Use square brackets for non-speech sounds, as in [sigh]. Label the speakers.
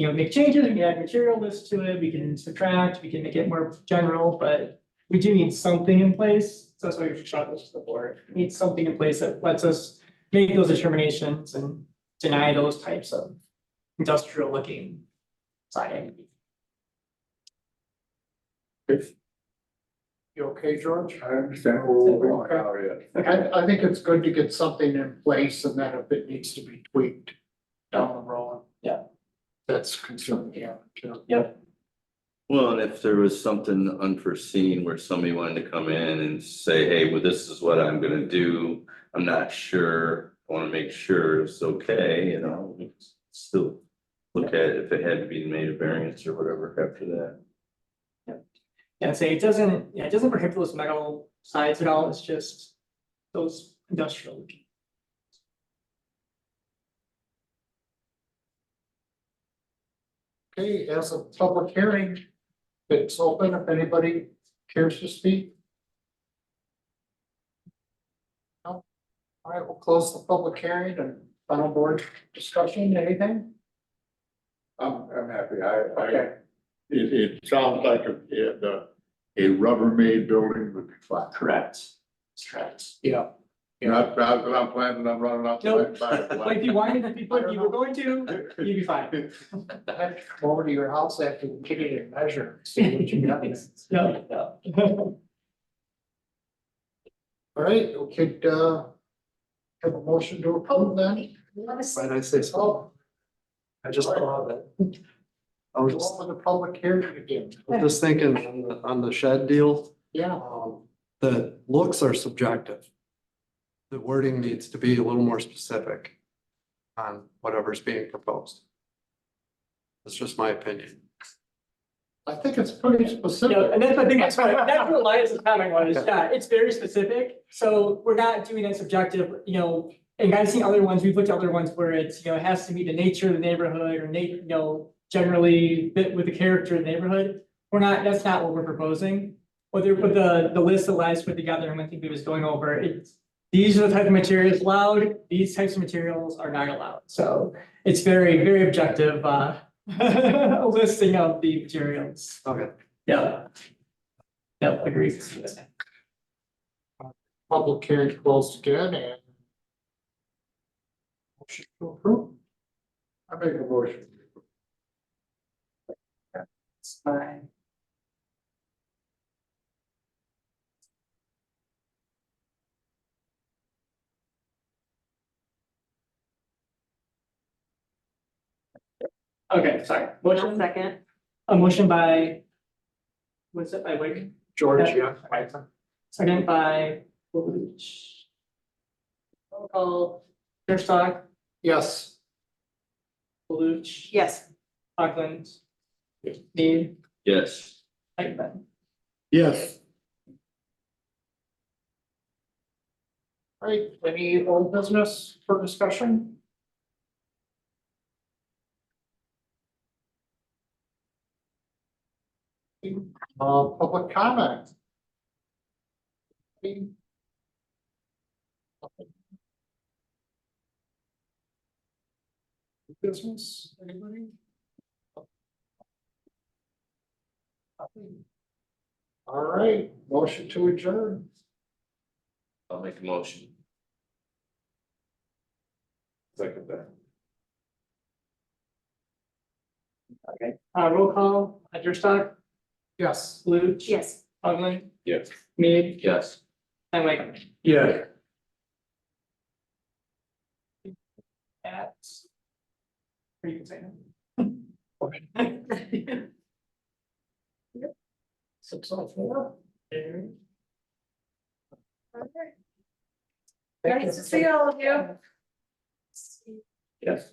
Speaker 1: you know, make changes, we can add material lists to it, we can subtract, we can make it more general, but we do need something in place, so that's why we shot this to the board, We need something in place that lets us make those determinations and deny those types of industrial looking siding.
Speaker 2: You okay, George?
Speaker 3: I understand Oh, where we're going out here.
Speaker 1: Okay,
Speaker 2: I, I think it's good to get something in place and then if it needs to be tweaked down the road.
Speaker 1: Yeah.
Speaker 2: That's concerning, yeah, too.
Speaker 4: Well, and if there was something unforeseen where somebody wanted to come in and say, hey, well, this is what I'm gonna do, I'm not sure, I wanna make sure it's okay, you know, we could still look at if it had to be made a variance or whatever after that.
Speaker 1: and say it doesn't, yeah, it doesn't prohibit those metal sides at all, it's just those industrial looking.
Speaker 2: Okay, as a public hearing, it's open if anybody cares to speak. No? All right, we'll close the public hearing and final board discussion, anything?
Speaker 3: I'm, I'm happy, I, I,
Speaker 2: Okay,
Speaker 3: it, it sounds like a, it, uh, a Rubbermaid building would be fine.
Speaker 4: Correct.
Speaker 2: strats, yeah.
Speaker 3: Not, not that I'm planning on running out. to
Speaker 1: Nope.
Speaker 3: buy a
Speaker 1: Like if you wanted to be, if you were going to,
Speaker 3: black-
Speaker 1: you'd be fine.
Speaker 2: I have to come over to your house after we get it and measure, and see what you got.
Speaker 1: No,
Speaker 2: [laughs]
Speaker 1: no.
Speaker 2: All right, we could, uh, have a motion to
Speaker 1: Oh,
Speaker 2: approve then.
Speaker 5: Yes.
Speaker 6: Why did I say so?
Speaker 2: So,
Speaker 6: I just thought of it. I was
Speaker 2: go
Speaker 6: just,
Speaker 2: on with the public hearing again.
Speaker 6: I was just thinking on the, on the shed deal,
Speaker 2: Yeah,
Speaker 6: um, the looks are subjective. The wording needs to be a little more specific on whatever's being proposed. That's just my opinion.
Speaker 2: I think it's pretty specific.
Speaker 1: No, and that's the thing,
Speaker 2: [laughs]
Speaker 1: that's what, that's what Elias is having on, is yeah, it's very specific, so we're not doing that subjective, you know. And I've seen other ones, we've looked at other ones where it's, you know, it has to meet the nature of the neighborhood or na- you know, generally fit with the character of the neighborhood. We're not, that's not what we're proposing. Whether, but the, the list that Elias put together and I think he was going over, it's, these are the type of materials allowed, these types of materials are not allowed, so it's very, very objective, uh, [laughs] listing of the materials.
Speaker 6: Okay.
Speaker 1: Yeah. Yeah, agreed.
Speaker 2: Public hearing closed again and. Motion to approve.
Speaker 3: I make a motion.
Speaker 1: Okay, sorry.
Speaker 5: I'll
Speaker 1: Motion,
Speaker 5: Second.
Speaker 1: a motion by, what's it, by Wick,
Speaker 2: George,
Speaker 1: Yeah.
Speaker 2: yeah.
Speaker 1: second by Willouch. Roll call, Gerstock,
Speaker 2: Yes.
Speaker 1: Willouch,
Speaker 5: Yes.
Speaker 1: Auckland. Need,
Speaker 4: Yes.
Speaker 1: Eichmann.
Speaker 3: Yes.
Speaker 2: All right, any old business for discussion? Uh, public comment? Business, anybody? All right, motion to adjourn.
Speaker 4: I'll make a motion.
Speaker 3: Second that.
Speaker 1: Uh, roll call, Gerstock,
Speaker 2: Yes.
Speaker 1: Willouch.
Speaker 5: Yes.
Speaker 1: Auckland,
Speaker 4: Yes.
Speaker 1: Need,
Speaker 4: Yes.
Speaker 1: and Wakeman.
Speaker 2: Yeah.
Speaker 1: At. Or you can say that.
Speaker 2: Six oh four.
Speaker 1: There.
Speaker 5: Nice to see all of you.
Speaker 4: Yes.